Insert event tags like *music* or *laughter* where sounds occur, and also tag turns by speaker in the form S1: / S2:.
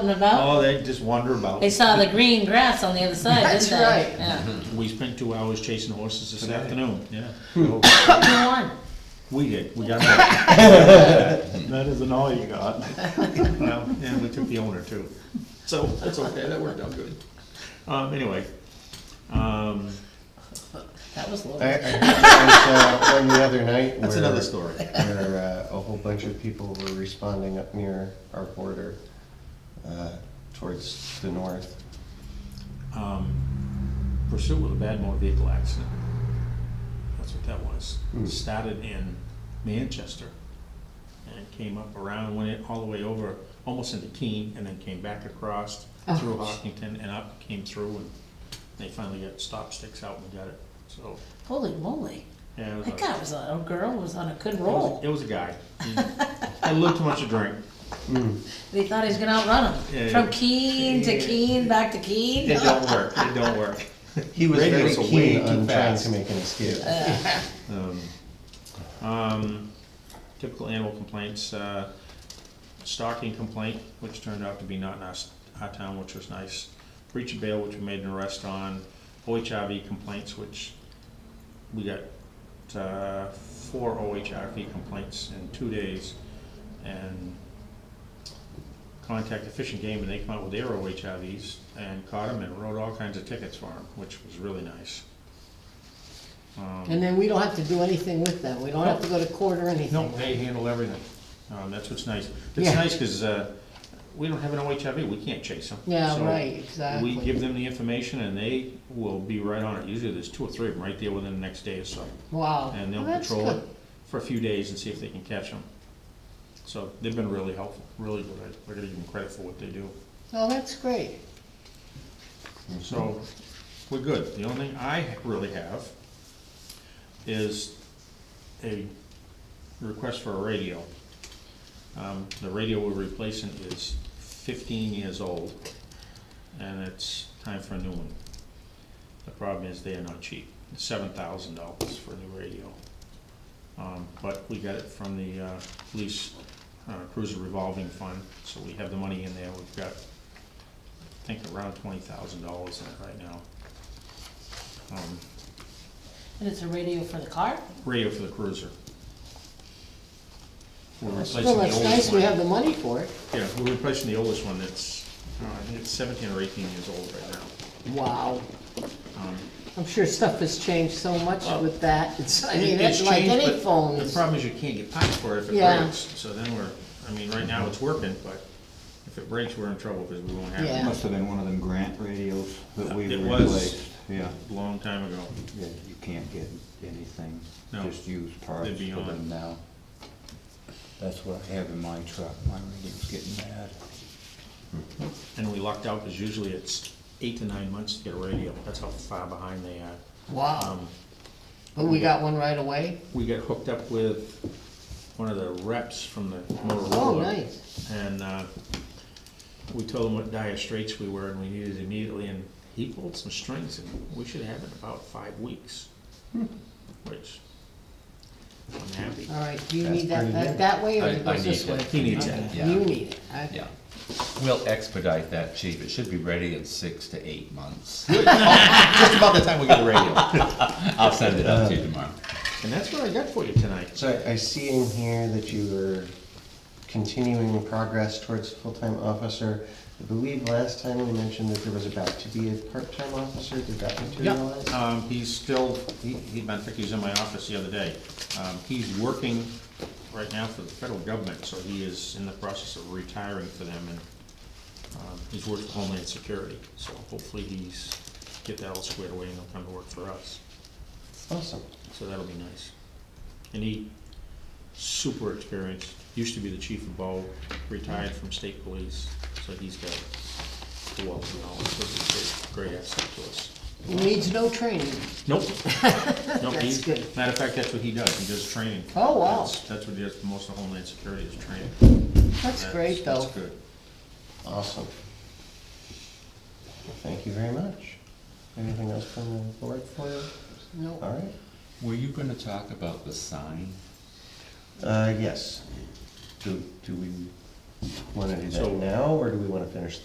S1: something about?
S2: Oh, they just wander about.
S1: They saw the green grass on the other side, didn't
S3: That's
S1: they?
S3: right.
S1: Yeah.
S2: We spent two hours chasing horses this
S4: Today.
S2: afternoon, yeah.
S1: Who won?
S2: We did, we got *laughs* that. That isn't all you *laughs* got. No, and we took the owner too. So, that's okay, that worked out good. Um, anyway, um,
S1: That was
S4: I, I
S1: Laura.
S4: heard that was, uh, one the other night
S2: that's
S4: where-
S2: another story.
S4: Where, uh, a whole bunch of people were responding up near our border, uh, towards the north.
S2: um, pursuit with a bad motor vehicle accident. That's what that was.
S4: Hmm.
S2: Started in Manchester and came up around, went it all the way over, almost into Keene, and then came back across through Hockington and up, came through, and they finally got stop sticks out and got it, so.
S1: Holy moly.
S2: yeah, it was
S1: That
S2: a-
S1: guy was, on- a girl was on a good
S2: it Uh-huh. was-
S1: roll.
S2: It was a guy. He Had a little too much to drink.
S1: They thought he was gonna outrun
S2: Yeah,
S1: him. From
S2: yeah.
S1: Keene to Keene, back to Keene.
S2: It don't work, it don't work.
S4: He was very
S2: Radio's way
S4: keen
S2: too
S4: on trying
S2: fast.
S4: to make an escape.
S2: Um, um, Typical animal complaints, uh, stalking complaint, which turned out to be not in our, s- our town, which was nice. Breach of bail, which we made an arrest on. OHRV complaints, which we got uh, four OHRV complaints in two days. And contacted Fish and Game, and they come out with their OHRVs and caught them and wrote all kinds of tickets for them, which was really nice. Um,
S3: And then we don't have to do anything with them, we don't have to go to court or anything.
S2: no, they handle everything. Um, that's what's nice. It's
S3: Yeah.
S2: nice because, uh, we don't have an OHIV, we can't chase them.
S3: Yeah, right,
S2: We give
S3: exactly.
S2: them the information and they will be right on it. Usually there's two or three of them right there within the next day or so.
S3: Wow.
S2: And they'll
S3: Well, Oh, that's
S2: patrol it
S3: good.
S2: for a few days and see if they can catch them. So they've been really helpful, really good. I- I gotta give them credit for what they do.
S3: No, that's great.
S2: So, we're good. The only thing I really have is a request for a radio. Um, the radio we're replacing is fifteen years old, and it's time for a new one. The problem is they are not cheap, seven thousand dollars for a new radio. Um, but we got it from the, uh, police uh, cruiser revolving fund, so we have the money in there. We've got I think around twenty thousand dollars in it right now. Um,
S1: And it's a radio for the car?
S2: Radio for the cruiser. We're replacing the
S3: Well, it's
S2: oldest
S3: nice we
S2: one.
S3: have the money for it.
S2: Yeah, we're replacing the oldest one that's, uh, I think it's seventeen or eighteen years old right now.
S3: Wow.
S2: Um,
S3: I'm sure stuff has changed so much
S2: Well,
S3: with that, *laughs* it's, I
S2: it-
S3: mean, it's like
S2: changed,
S3: any
S2: but
S3: phone.
S2: The problem is you can't get parts for it if it
S3: Yeah.
S2: breaks, so then we're, I mean, right now it's working, but if it breaks, we're in trouble because we won't have
S3: Yeah.
S2: it
S4: Must have been one of them grant radios that we
S2: It was.
S4: replaced. Yeah,
S2: a long time ago.
S4: yeah, you can't get anything,
S2: No.
S4: just used parts
S2: They'd be
S4: for
S2: on.
S4: them now. That's what I have in my truck, my radio's getting bad.
S2: And we lucked out because usually it's eight to nine months to get a radio, that's how far behind they are.
S3: Wow,
S2: Um,
S3: but we got one right away?
S2: we got hooked up with one of the reps from the Motorola.
S3: Oh, nice.
S2: And, uh, we told him what dire straits we were and we needed it immediately, and he pulled some strings, and we should have it in about five weeks,
S3: Hmm.
S2: which I'm happy.
S3: All right, do you
S5: That's
S3: need that
S5: pretty
S3: back
S5: good.
S3: that way or
S5: I-
S3: it
S5: I
S3: goes this
S5: need
S3: way?
S5: it.
S2: He needs that.
S3: Okay,
S5: Yeah.
S3: You need it, I-
S5: Yeah, we'll expedite that, chief, it should be ready in six to eight months.
S2: *laughs* Just about the time we get a radio.
S5: *laughs* I'll send it up to you tomorrow.
S2: And that's what I got for you tonight.
S4: So I- I see in here that you were continuing progress towards full-time officer. I believe last time we mentioned that there was about to be a part-time officer, did that materialize?
S2: Um, he's still, he, he, I think he was in my office the other day. Um, he's working right now for the federal government, so he is in the process of retiring for them and, um, he's working for Homeland Security, so hopefully he's, get that all squared away and he'll come to work for us.
S4: Awesome.
S2: So that'll be nice. And he, super experienced, used to be the chief of BO, retired from state police, so he's got a wealth of knowledge, so he's a great great asset to us.
S3: He needs no training. *laughs*
S2: Nope. Nope,
S3: That's
S2: he's,
S3: good.
S2: matter of fact, that's what he does, he does training.
S3: Oh, wow.
S2: That's- That's what he does, for most of Homeland Security is training.
S3: That's great, though.
S2: That's good.
S4: Awesome. Well, Thank you very much. Anything else from the board for you?
S3: No.
S4: All right.
S5: Were you gonna talk about the sign?
S4: Uh, yes. Do, do we wanna do
S2: So-
S4: that now, or do we wanna finish